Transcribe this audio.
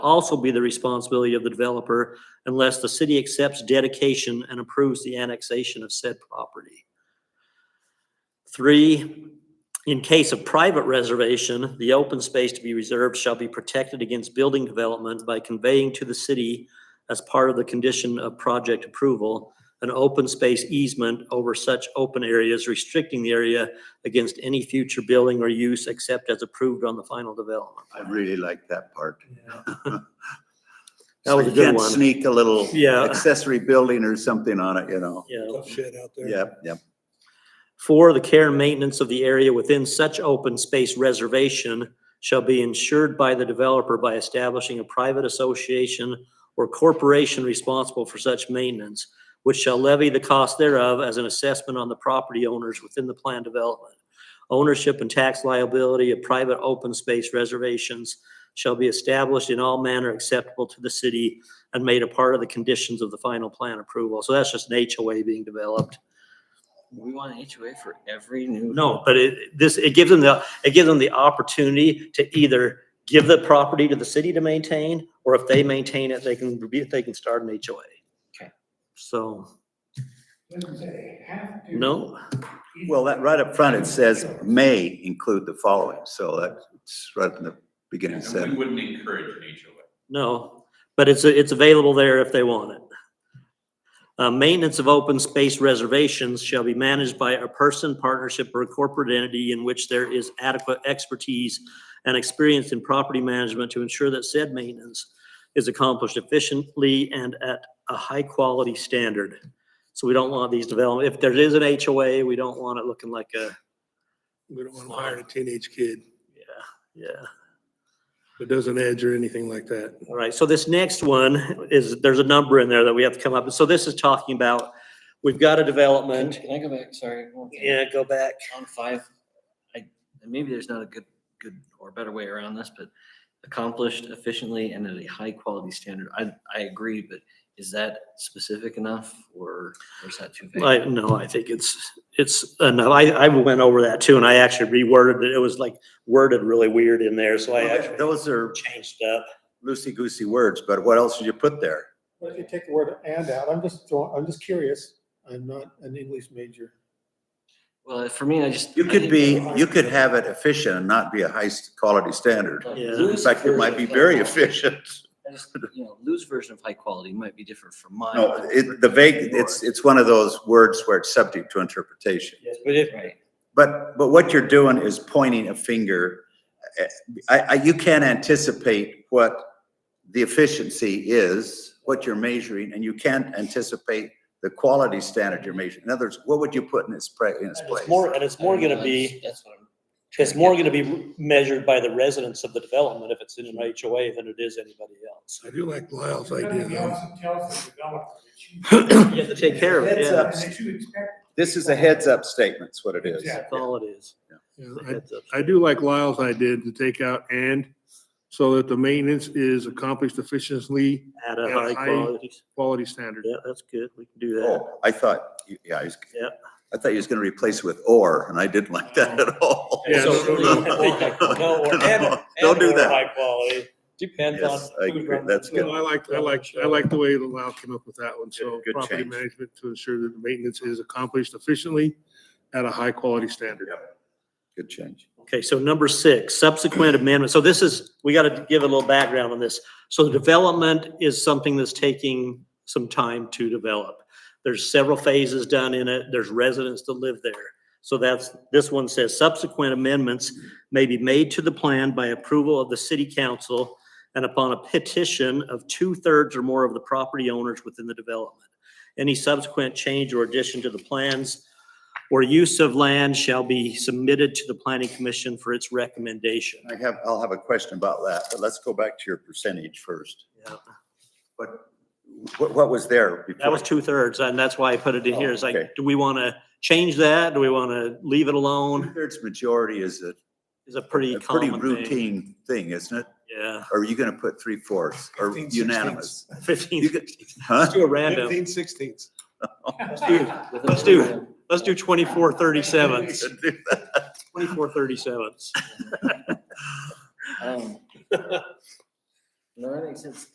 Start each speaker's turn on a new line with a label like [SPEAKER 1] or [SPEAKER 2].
[SPEAKER 1] also be the responsibility of the developer unless the city accepts dedication and approves the annexation of said property. Three, in case of private reservation, the open space to be reserved shall be protected against building development by conveying to the city as part of the condition of project approval, an open space easement over such open areas restricting the area against any future building or use except as approved on the final development.
[SPEAKER 2] I really like that part.
[SPEAKER 1] That was a
[SPEAKER 2] So you
[SPEAKER 1] good
[SPEAKER 2] can't
[SPEAKER 1] one.
[SPEAKER 2] Sneak a little
[SPEAKER 1] Yeah.
[SPEAKER 2] accessory building or something on it, you know?
[SPEAKER 1] Yeah.
[SPEAKER 3] Tough shit out there.
[SPEAKER 2] Yep, yep.
[SPEAKER 1] Four, the care and maintenance of the area within such open space reservation shall be ensured by the developer by establishing a private association or corporation responsible for such maintenance, which shall levy the cost thereof as an assessment on the property owners within the planned development. Ownership and tax liability of private open space reservations shall be established in all manner acceptable to the city and made a part of the conditions of the final plan approval. So that's just an HOA being developed.
[SPEAKER 4] We want an HOA for every new.
[SPEAKER 1] No, but it, this, it gives them the, it gives them the opportunity to either give the property to the city to maintain, or if they maintain it, they can, be- they can start an HOA.
[SPEAKER 4] Okay.
[SPEAKER 1] So. No,
[SPEAKER 2] Well, that, right up front, it says may include the following, so that's right in the beginning
[SPEAKER 5] And we
[SPEAKER 2] sentence.
[SPEAKER 5] wouldn't encourage an HOA.
[SPEAKER 1] no, but it's, it's available there if they want it. Uh, maintenance of open space reservations shall be managed by a person, partnership, or corporate entity in which there is adequate expertise and experience in property management to ensure that said maintenance is accomplished efficiently and at a high quality standard. So we don't want these development, if there is an HOA, we don't want it looking like a,
[SPEAKER 3] We don't want to hire a teenage kid
[SPEAKER 1] yeah.
[SPEAKER 3] that doesn't edge or anything like that.
[SPEAKER 1] All right, so this next one is, there's a number in there that we have to come up with. So this is talking about, we've got a
[SPEAKER 4] Can
[SPEAKER 1] development.
[SPEAKER 4] can I go back? Sorry. one thing.
[SPEAKER 1] Yeah, go back.
[SPEAKER 4] On five, I, maybe there's not a good, good or better way around this, but accomplished efficiently and at a high quality standard. I, I agree, but is that specific enough or or is that too
[SPEAKER 1] I,
[SPEAKER 4] vague?
[SPEAKER 1] no, I think it's, it's enough. I, I went over that too and I actually reworded it. It was like worded really weird in there, so I actually
[SPEAKER 2] Those are
[SPEAKER 1] changed up.
[SPEAKER 2] loosey-goosey words, but what else did you put there?
[SPEAKER 6] Well, if you take the word and out, I'm just throwing, I'm just curious. I'm not an English major.
[SPEAKER 4] Well, for me, I just.
[SPEAKER 2] You
[SPEAKER 4] I
[SPEAKER 2] could
[SPEAKER 4] think-
[SPEAKER 2] be, you could have it efficient and not be a high-quality standard.
[SPEAKER 4] Like,
[SPEAKER 1] Yeah.
[SPEAKER 2] In
[SPEAKER 4] Lou's
[SPEAKER 2] fact, it might be
[SPEAKER 4] version of
[SPEAKER 2] very
[SPEAKER 4] high quality-
[SPEAKER 2] efficient.
[SPEAKER 4] I just- You know, Lou's version of high quality might be different from mine.
[SPEAKER 2] No,
[SPEAKER 4] but-
[SPEAKER 2] it, the vague, it's, it's one of those words where it's subject to interpretation.
[SPEAKER 1] Yes, but if,
[SPEAKER 4] Right.
[SPEAKER 2] But, but what you're doing is pointing a finger. I, I, you can't anticipate what the efficiency is, what you're measuring, and you can't anticipate the quality standard you're measuring. In other words, what would you put in its pra, in its place?
[SPEAKER 1] it's more, and it's more gonna be,
[SPEAKER 4] That's what I'm.
[SPEAKER 1] it's more gonna be measured by the residents of the development if it's in an HOA than it is anybody else.
[SPEAKER 3] I do like Lyle's
[SPEAKER 7] But
[SPEAKER 3] idea
[SPEAKER 7] then you
[SPEAKER 3] though.
[SPEAKER 7] also tell us the developer that
[SPEAKER 1] You have to take care of it,
[SPEAKER 2] Heads
[SPEAKER 1] yeah.
[SPEAKER 2] up.
[SPEAKER 7] you- that you expect
[SPEAKER 2] This is a heads up statement, is what it is.
[SPEAKER 7] Yeah.
[SPEAKER 1] That's all it is.
[SPEAKER 3] Yeah,
[SPEAKER 1] It's a
[SPEAKER 3] I-
[SPEAKER 1] heads up.
[SPEAKER 3] I do like Lyle's idea to take out and so that the maintenance is accomplished efficiently,
[SPEAKER 1] At a
[SPEAKER 3] Yeah,
[SPEAKER 1] high
[SPEAKER 3] I-
[SPEAKER 1] quality,
[SPEAKER 3] quality standard.
[SPEAKER 1] yeah, that's good, we can do that.
[SPEAKER 2] Oh, I thought, you- yeah, I was.
[SPEAKER 1] Yep.
[SPEAKER 2] I thought you was gonna replace it with or, and I didn't like that at all.
[SPEAKER 3] Yeah,
[SPEAKER 1] So-
[SPEAKER 3] no, no,
[SPEAKER 1] No, or- and-
[SPEAKER 2] Don't do
[SPEAKER 1] and/or
[SPEAKER 2] that.
[SPEAKER 1] High quality, depends on.
[SPEAKER 2] Yes, I
[SPEAKER 1] who's
[SPEAKER 2] agree.
[SPEAKER 1] on
[SPEAKER 2] That's
[SPEAKER 1] the-
[SPEAKER 2] good.
[SPEAKER 3] No, I like, I like, I like the way that Lyle came up with that one. So
[SPEAKER 2] Good- good
[SPEAKER 3] property
[SPEAKER 2] change.
[SPEAKER 3] management to ensure that the maintenance is accomplished efficiently at a high quality standard.
[SPEAKER 2] Good change.
[SPEAKER 1] Okay, so number six, subsequent amendment. So this is, we got to give a little background on this. So the development is something that's taking some time to develop. There's several phases done in it. There's residents that live there. So that's, this one says subsequent amendments may be made to the plan by approval of the city council and upon a petition of two-thirds or more of the property owners within the development. Any subsequent change or addition to the plans or use of land shall be submitted to the planning commission for its recommendation.
[SPEAKER 2] I have, I'll have a question about that, but let's go back to your percentage first.
[SPEAKER 1] Yeah.
[SPEAKER 2] But what, what was there before?
[SPEAKER 1] That was two thirds, and that's why I put it in here. It's
[SPEAKER 2] Oh, Okay.
[SPEAKER 1] like, do we want to change that? Do we want to leave it alone?
[SPEAKER 2] Two-thirds majority is a,
[SPEAKER 1] It's a pretty
[SPEAKER 2] a pretty
[SPEAKER 1] common thing.
[SPEAKER 2] routine thing, isn't it?
[SPEAKER 1] Yeah,
[SPEAKER 2] Or are you gonna put three-fourths or unanimous?
[SPEAKER 1] fifteen,
[SPEAKER 2] You
[SPEAKER 1] let's
[SPEAKER 2] could- Huh?
[SPEAKER 1] do a random.
[SPEAKER 3] sixteenths.
[SPEAKER 1] Let's do, let's do, let's do twenty-four thirty-seven, twenty-four thirty-sevens.
[SPEAKER 4] Um, No, that makes sense.